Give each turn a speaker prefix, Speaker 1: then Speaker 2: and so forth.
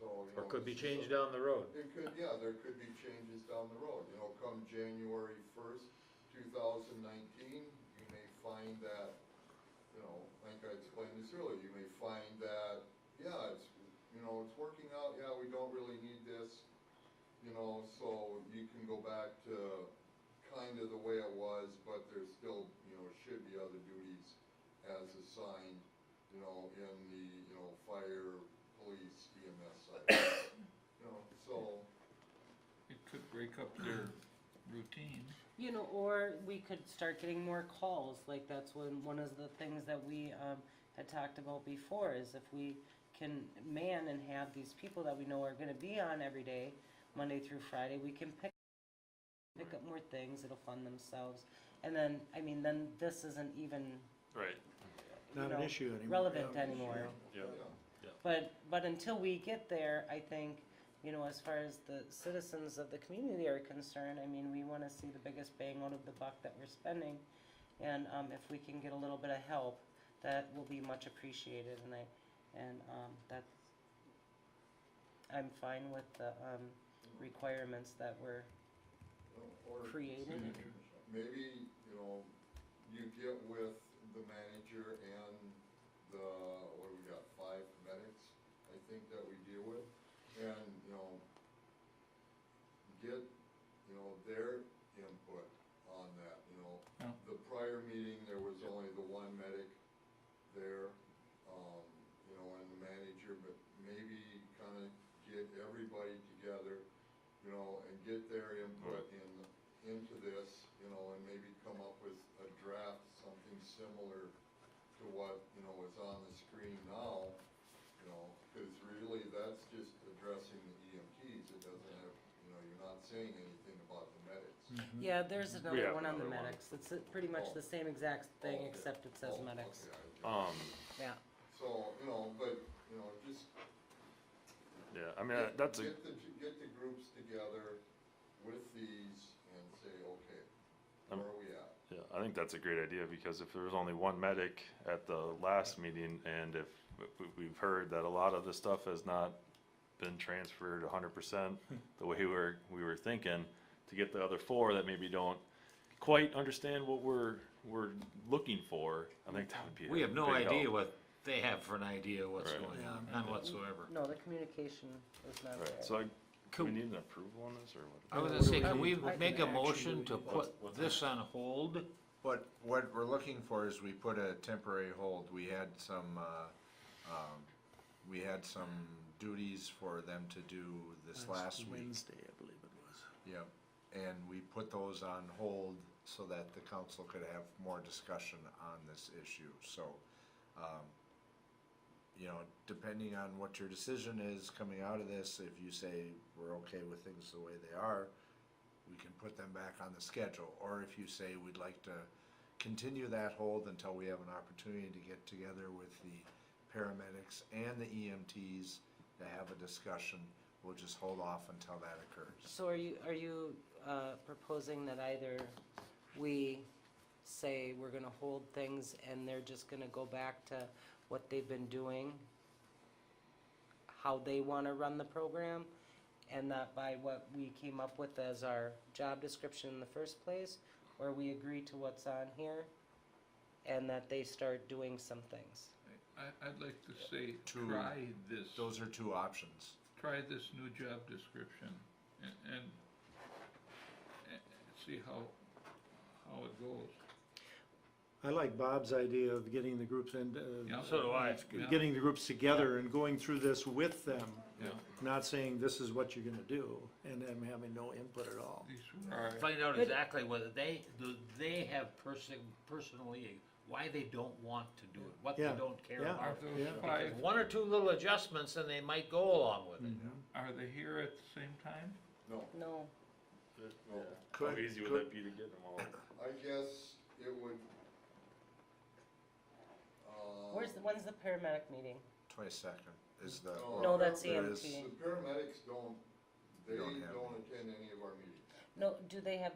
Speaker 1: you
Speaker 2: Or
Speaker 1: know,
Speaker 2: could be
Speaker 1: this is
Speaker 2: changed
Speaker 1: a-
Speaker 2: down the road.
Speaker 1: It could, yeah, there could be changes down the road, you know, come January first, two thousand nineteen, you may find that, you know, like I explained this earlier, you may find that, yeah, it's, you know, it's working out, yeah, we don't really need this, you know, so you can go back to kind of the way it was, but there's still, you know, should be other duties as assigned, you know, in the, you know, fire, police, E EMS side. You know, so,
Speaker 3: It could break up their routine.
Speaker 4: You know, or we could start getting more calls, like that's when, one of the things that we, um, had talked about before is if we can man and have these people that we know are gonna be on every day, Monday through Friday, we can pick, pick up more things, it'll fund themselves. And then, I mean, then this isn't even,
Speaker 5: Right.
Speaker 4: you
Speaker 6: Not an
Speaker 4: know,
Speaker 6: issue anymore.
Speaker 4: relevant anymore.
Speaker 1: yeah,
Speaker 4: But, but until we get there, I think, you know, as far as the citizens of the community are concerned, I mean, we wanna see the biggest bang out of the buck that we're spending. And, um, if we can get a little bit of help, that will be much appreciated, and I, and, um, that's, I'm fine with the, um, requirements that were
Speaker 1: you know, or
Speaker 4: created.
Speaker 1: maybe, you know, you get with the manager and the, what do we got, five medics, I think that we deal with, and, you know, get, you know, their input on that, you know.
Speaker 3: Yeah.
Speaker 1: The prior meeting, there was only the one medic there, um, you know, and the manager, but maybe kinda get everybody together, you know, and get their input in, into this, you know, and maybe come up with a draft, something similar to what, you know, is on the screen now, you know, cause really that's just addressing the EMTs, it doesn't have, you know, you're not saying anything about the medics.
Speaker 3: Mm.
Speaker 6: Mm-hmm.
Speaker 4: Yeah, there's another
Speaker 5: have
Speaker 4: one on the
Speaker 5: another one.
Speaker 4: medics, it's uh, pretty much the same exact thing, except it says
Speaker 1: Oh,
Speaker 4: medics,
Speaker 1: okay, I get it.
Speaker 5: Um,
Speaker 4: yeah.
Speaker 1: So, you know, but, you know, just
Speaker 5: yeah, I mean, uh, that's a,
Speaker 1: Get the, get the groups together with these and say, okay,
Speaker 5: Um,
Speaker 1: where are we at?
Speaker 5: yeah, I think that's a great idea because if there was only one medic at the last meeting and if we- we've heard that a lot of the stuff has not been transferred hundred percent the way we were, we were thinking, to get the other four that maybe don't quite understand what we're, we're looking for, I think that would be. a
Speaker 2: We have no
Speaker 5: big
Speaker 2: idea
Speaker 5: help.
Speaker 2: what they have for an idea what's
Speaker 5: Right.
Speaker 2: going on, none whatsoever.
Speaker 4: No, the communication is not there.
Speaker 5: Right, so I, do we
Speaker 2: Can,
Speaker 5: need an approval on this or what?
Speaker 2: I was gonna say,
Speaker 4: I
Speaker 2: can we
Speaker 4: can
Speaker 2: make a
Speaker 4: actually-
Speaker 2: motion to put this on hold?
Speaker 7: What, what we're looking for is we put a temporary hold, we had some, uh, um, we had some duties for them to do this last week.
Speaker 6: Wednesday, I believe it was.
Speaker 7: Yep, and we put those on hold so that the council could have more discussion on this issue, so, um, you know, depending on what your decision is coming out of this, if you say we're okay with things the way they are, we can put them back on the schedule, or if you say we'd like to continue that hold until we have an opportunity to get together with the paramedics and the EMTs to have a discussion, we'll just hold off until that occurs.
Speaker 4: So are you, are you uh, proposing that either we say we're gonna hold things and they're just gonna go back to what they've been doing? How they wanna run the program? And not by what we came up with as our job description in the first place? Or we agree to what's on here and that they start doing some things?
Speaker 3: I, I'd like to say,
Speaker 7: To-
Speaker 3: try this,
Speaker 7: Those are two options.
Speaker 3: try this new job description and, and, and see how, how it goes.
Speaker 6: I like Bob's idea of getting the groups and,
Speaker 3: Yeah.
Speaker 6: uh,
Speaker 2: So do I.
Speaker 3: Yeah.
Speaker 6: getting the groups together and going through this with them.
Speaker 3: Yeah.
Speaker 6: Not saying this is what you're gonna do, and them having no input at all.
Speaker 3: These were our
Speaker 2: Find out exactly whether they, do they have person, personally, why they don't want to do it, what they
Speaker 6: Yeah,
Speaker 2: don't care
Speaker 6: yeah.
Speaker 2: about.
Speaker 3: Those
Speaker 6: Yeah.
Speaker 3: five,
Speaker 2: One or two little adjustments and they might go along with it.
Speaker 3: are they here at the same time?
Speaker 1: No,
Speaker 4: No,
Speaker 1: no,
Speaker 5: How easy would that be to get them all?
Speaker 1: I guess it would, uh.
Speaker 4: where's, the- when's the paramedic meeting?
Speaker 7: Twenty-second is the.
Speaker 1: No,
Speaker 4: No, that's E
Speaker 7: there
Speaker 4: EMT.
Speaker 7: is-
Speaker 1: The paramedics don't, they
Speaker 7: Don't have
Speaker 1: don't attend any of our meetings.
Speaker 4: No, do they have